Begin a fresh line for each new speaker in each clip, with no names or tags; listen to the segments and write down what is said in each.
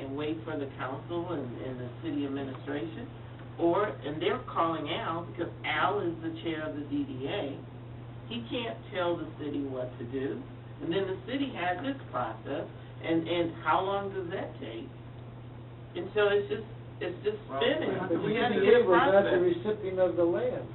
directly for the council and, and the city administration, or, and they're calling Al, because Al is the chair of the DDA. He can't tell the city what to do, and then the city has its process, and, and how long does that take? And so it's just, it's just
Well,
spinning,
but
we
you
gotta
can
get a
give us
process.
the recipient of the land.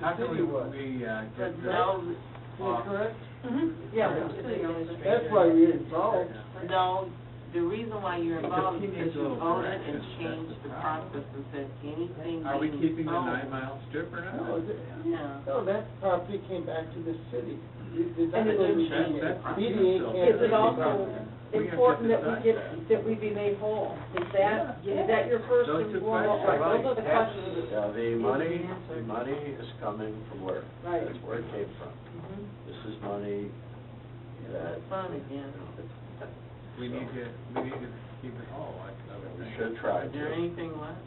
How can we,
City was.
we, uh,
But
get rid
no,
Is that correct?
Yeah,
Mm-hmm. Yeah.
but the city administrator.
That's why we're involved.
No, the reason why you're involved is because
Because he needs a
you
little
voted and
direction,
changed the
that's the problem.
process and said anything.
Are we
being
keeping the
sold-
nine mile strip or not?
No, is it-
No.
no, that property came back to the city. It did not
And it
go
didn't
to the
change
DDA.
that
property
DDA
itself.
can't
Is it
do
also
We have to
important that we
decide
get,
that.
that we be made whole? Is that,
Yeah.
is that your first
Those
and
two
foremost?
questions.
Right, Those are the
Right.
questions.
Yeah, the Uh, money,
Answer.
the money is coming from where?
Right.
That's where it came from.
Mhm.
This is money that.
It's fun again.
We need to, we need to keep it all, uh, I, I would
We
think.
should try
Is there
to.
anything left?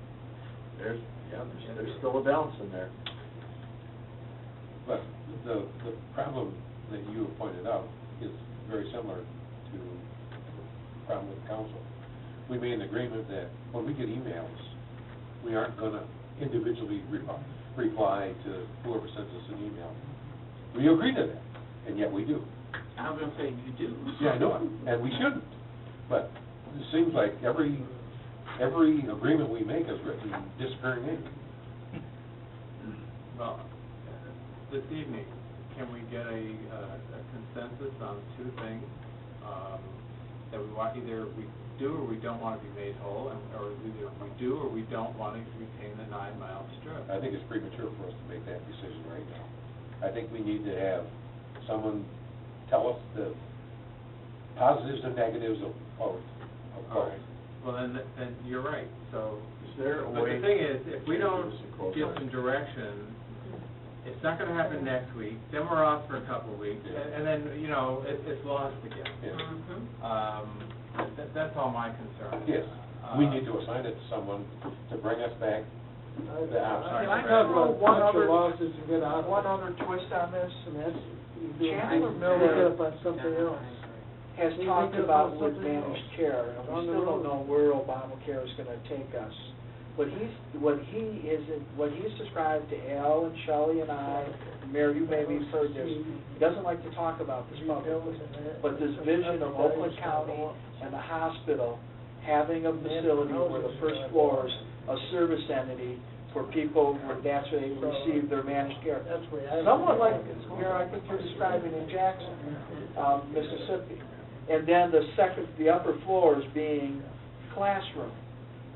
There's, yeah, there's, there's still a balance in there.
But the, the problem that you have pointed out is very similar to the problem with council. We made an agreement that when we get emails, we aren't gonna individually reply, reply to whoever sends us an email. We agreed to that, and yet we do.
I was gonna say, you do.
Yeah, I know it, and we shouldn't. But it seems like every, every agreement we make is written disappearing ink.
Well, this evening, can we get a, uh, a consensus on two things? Um, that we want, either we do or we don't want to be made whole, and, or either we do or we don't want to retain the nine mile strip.
I think it's premature for us to make that decision right now. I think we need to have someone tell us the positives and negatives of both. of
All
both.
right. Well, then, then you're right, so.
Is there a
But
way?
the thing is, if we don't
This is a close
give
line.
some direction, it's not gonna happen next week, then we're off for a couple of weeks,
Yeah.
and and then, you know, it, it's lost again.
Yeah.
Mhm.
Um, that, that's all my concern.
Yes,
Uh,
we need to assign it to someone to bring us back.
I-
Yeah, I'm
sorry.
I talk about
One
cut your
other-
losses and get out.
uh, One other twist on this,
And that's, you do,
Chandler
pick
Miller
up on something else.
has
We
talked
need to
about
know
wood
something
managed
else.
care, and we
On the
still
road.
don't know where Obamacare is gonna take us. What he's, what he is, what he's described to Al and Shelley and I, Mayor, you maybe have heard this, he doesn't like to talk about this publicly, but this vision of Oakland County and the hospital having a facility where the first floor is a service entity for people, where that's where they receive their managed care.
That's where I.
Somewhat like, you know, I think you're describing in Jackson, um, Mississippi. And then the second, the upper floors being classroom.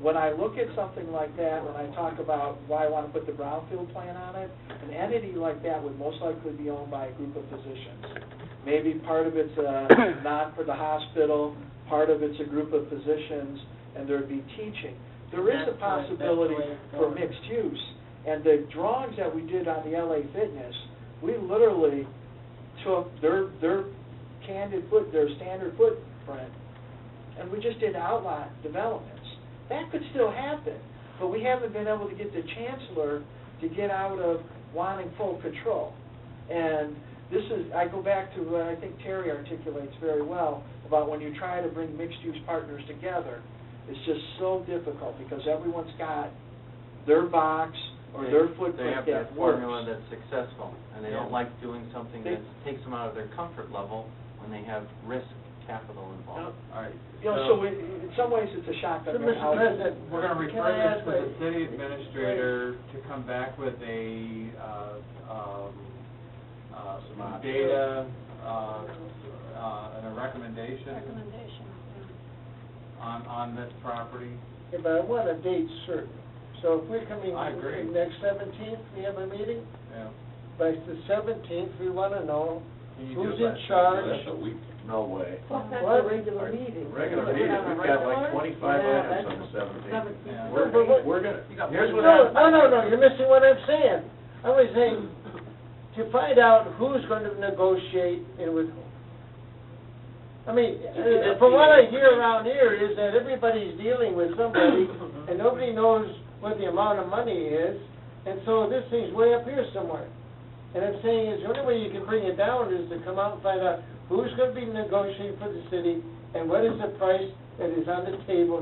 When I look at something like that, when I talk about why I want to put the brownfield plan on it, an entity like that would most likely be owned by a group of physicians. Maybe part of it's a, not for the hospital, part of it's a group of physicians, and there'd be teaching. There is a
That's right, that's the
possibility
way it's
for
going.
mixed use. And the drawings that we did on the LA Fitness, we literally took their, their candid foot, their standard footprint, and we just did outline developments. That could still happen, but we haven't been able to get the chancellor to get out of wanting full control. And this is, I go back to what I think Terry articulates very well about when you try to bring mixed-use partners together, it's just so difficult because everyone's got their box or their
They
footprint
have their
that
formula
works.
that's successful, and they
Yeah.
don't like doing something
They-
that takes them out of their comfort level when they have risk capital involved.
All right.
You know, so in, in some ways, it's a shock
So,
that
Mr. President,
uh, We're gonna
can I
refer this
ask
to the
a-
city administrator to come back with a, uh, um, uh, some data, uh, uh, and a recommendation
recommendation. yeah.
on, on this property.
Yeah, but I want a date certain. So if we're coming
I agree.
next seventeenth, we have a meeting,
Yeah.
by the seventeenth, we want to know
Can you do
who's in
that?
charge.
That's a week.
No way.
Plus, that's
What?
a regular meeting.
Regular
We're
meeting,
gonna have a
we've got like
regular?
twenty-five
Yeah,
items on
that's-
the seventeenth.
Seventeenth.
Yeah.
We're,
But-
we're gonna, here's what
No,
happens.
no, no, no, you're missing what I'm saying. I was saying, to find out who's going to negotiate and with whom. I mean, uh, from what I hear around here is that everybody's dealing with somebody, and nobody knows what the amount of money is, and so this thing's way up here somewhere. And I'm saying is, the only way you can bring it down is to come out and find out who's gonna be negotiating for the city, and what is the price that is on the table